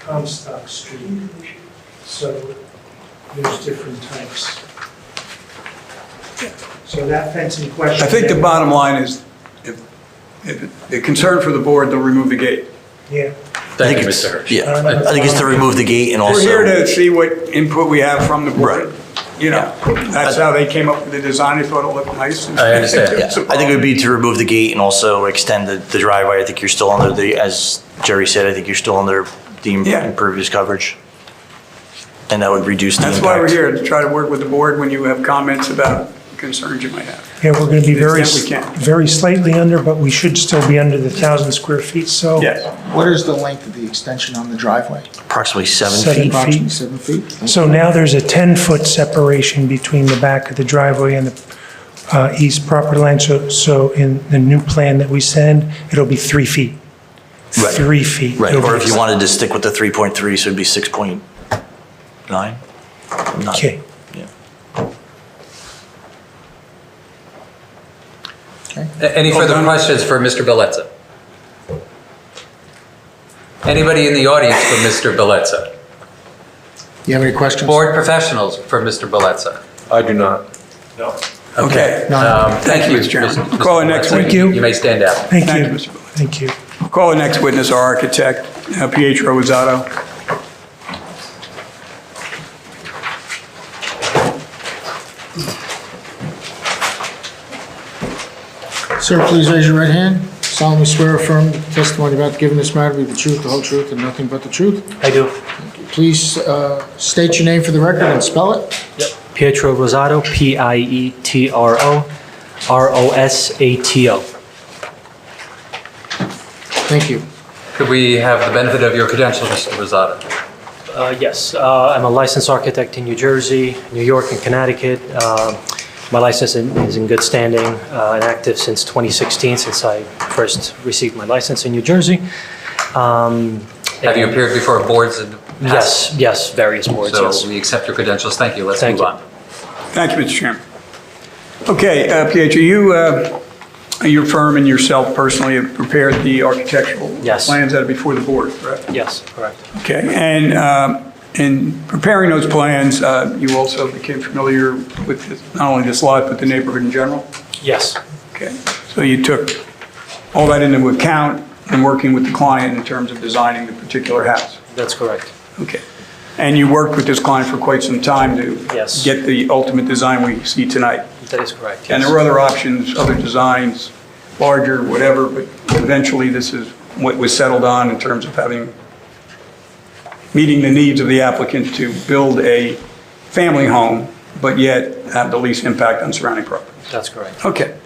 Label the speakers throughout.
Speaker 1: Comstock Street. So there's different types. So that fencing question.
Speaker 2: I think the bottom line is, if, if, the concern for the board, they'll remove the gate.
Speaker 1: Yeah,
Speaker 3: Thank you, Mr.
Speaker 4: I think it's-
Speaker 3: Hirsch.
Speaker 4: Yeah, I I think it's to remove the gate and also.
Speaker 2: We're here to see what input we have from the
Speaker 4: Right.
Speaker 2: board. You know, that's how they came up with the design, they thought it looked nice. and-
Speaker 3: I understand.
Speaker 4: Yeah, I think it would be to remove the gate and also extend the the driveway. I think you're still under the, as Jerry said, I think you're still under the im-
Speaker 2: Yeah.
Speaker 4: impervious coverage. And that would reduce the
Speaker 2: That's
Speaker 4: impact.
Speaker 2: why we're here, to try to work with the board when you have comments about concerns you might have.
Speaker 1: yeah, we're going to be
Speaker 2: To the
Speaker 1: very,
Speaker 2: extent we can.
Speaker 1: very slightly under, but we should still be under the 1,000 square feet, so.
Speaker 5: What is the length of the extension on the driveway?
Speaker 4: Approximately seven
Speaker 1: Seven.
Speaker 4: feet.
Speaker 5: Approximately seven feet?
Speaker 1: So now there's a 10-foot separation between the back of the driveway and the uh, east property line, so, so in the new plan that we send, it'll be three feet.
Speaker 4: Right.
Speaker 1: Three feet.
Speaker 4: Right,
Speaker 1: It'll
Speaker 4: or
Speaker 1: be-
Speaker 4: if you wanted to stick with the 3.3, so it'd be 6.9? Not-
Speaker 1: Okay,
Speaker 4: yeah.
Speaker 3: A- Any further questions for Mr. Bellezza? Anybody in the audience for Mr. Bellezza?
Speaker 5: You have any questions?
Speaker 3: Board professionals for Mr. Bellezza?
Speaker 6: I do not.
Speaker 2: Okay.
Speaker 5: None?
Speaker 3: Um, Thank you,
Speaker 2: Mr. Chairman.
Speaker 3: Mr.
Speaker 2: Call it next
Speaker 3: Bellezza.
Speaker 2: week. Thank
Speaker 1: you.
Speaker 3: You may stand down.
Speaker 1: thank
Speaker 2: Thank
Speaker 1: you.
Speaker 2: you, Mr. Bellezza.
Speaker 1: Thank you.
Speaker 2: Call the next witness, our architect, uh, Pietro Rosato.
Speaker 5: Sir, please raise your right hand. Solemnly swear or affirm that the testimony about to give in this matter be the truth, the whole truth, and nothing but the truth.
Speaker 7: I do.
Speaker 5: Please uh, state your name for the record and spell it.
Speaker 7: Pietro Rosato, E P-I-E-T-R-O, R-O-S-A-T-O.
Speaker 5: Thank you.
Speaker 3: Could we have the benefit of your credentials, Mr. Rosado?
Speaker 7: Uh, Yes, uh, I'm a licensed architect in New Jersey, New York, and Connecticut. Um, My license in- is in good standing uh, and active since 2016, since I first received my license in New Jersey. Um,
Speaker 3: Have you appeared before boards in the past?
Speaker 7: Yes, yes, various boards, yes.
Speaker 3: So we accept your credentials. Thank you. Let's
Speaker 7: Thank
Speaker 3: move
Speaker 7: you.
Speaker 3: on.
Speaker 2: Thank you, Mr. Chairman. Okay, uh, Pietro, you, uh, your firm and yourself personally have prepared the architectural
Speaker 7: Yes.
Speaker 2: plans that are before the board, correct?
Speaker 7: Yes, correct.
Speaker 2: Okay, and um, in preparing those plans, uh, you also became familiar with this- not only this lot, but the neighborhood in general?
Speaker 7: Yes,
Speaker 2: Okay, so you took all that into account in working with the client in terms of designing the particular house?
Speaker 7: that's correct.
Speaker 2: Okay. And you worked with this client for quite some time to
Speaker 7: Yes.
Speaker 2: get the ultimate design we see tonight?
Speaker 7: That is correct,
Speaker 2: And there
Speaker 7: yes.
Speaker 2: were other options, other designs, larger, whatever, but eventually this is what was settled on in terms of having, meeting the needs of the applicant to build a family home, but yet have the least impact on surrounding property.
Speaker 7: That's correct.
Speaker 2: Okay.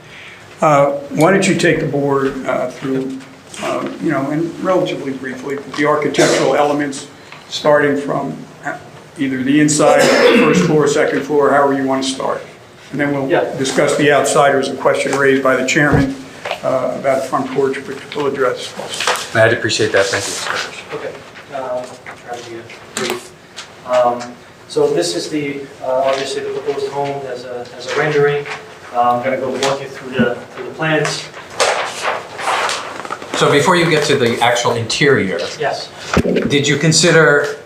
Speaker 2: Uh, Why don't you take the board uh, through, uh, you know, and relatively briefly, the architectural elements, starting from uh, either the inside, first floor, second floor, however you want to start. And then we'll
Speaker 7: Yeah.
Speaker 2: discuss the outsiders, a question raised by the chairman uh, about the front porch, which we'll address.
Speaker 3: I'd appreciate that. Thank you, Mr. Hirsch.
Speaker 7: Okay, um, I'll try to be brief. Um, So this is the, uh, obviously, the proposed home as a, as a rendering. Uh, I'm gonna go walk you through the, through the plans.
Speaker 3: So before you get to the actual interior,
Speaker 7: Yes,
Speaker 3: did you consider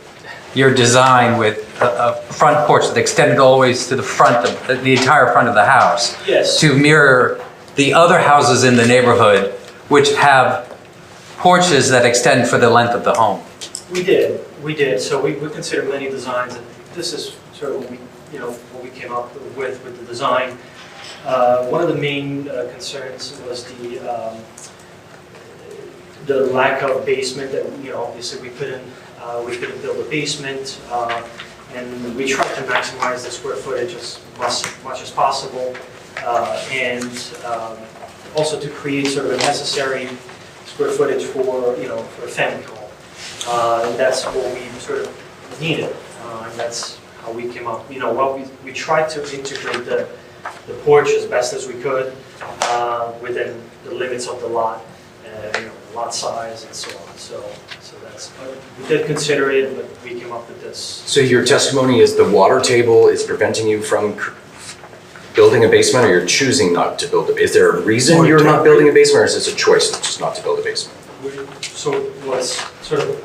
Speaker 3: your design with a, a front porch that extended always to the front of, the entire front of the house?
Speaker 7: Yes.
Speaker 3: To mirror the other houses in the neighborhood which have porches that extend for the length of the home?
Speaker 7: we did, we did. So we, we considered many designs, and this is sort of what we, you know, what we came up with, with the design. Uh, One of the main uh, concerns was the, um, the lack of basement that, you know, obviously we couldn't, uh, we couldn't build a basement. uh, And we tried to maximize the square footage as much, much as possible. uh, And um, also to create sort of a necessary square footage for, you know, for a family home. Uh, and That's what we sort of needed. uh, And that's how we came up, you know, what we, we tried to integrate the, the porch as best as we could uh, within the limits of the lot, uh, you know, lot size and so on. So, so that's, but we did consider it, but we came up with this.
Speaker 8: So your testimony is the water table is preventing you from cr- building a basement, or you're choosing not to build a, is there a reason you're not building a basement, or is this a choice just not to build a basement?
Speaker 7: We- So it was sort of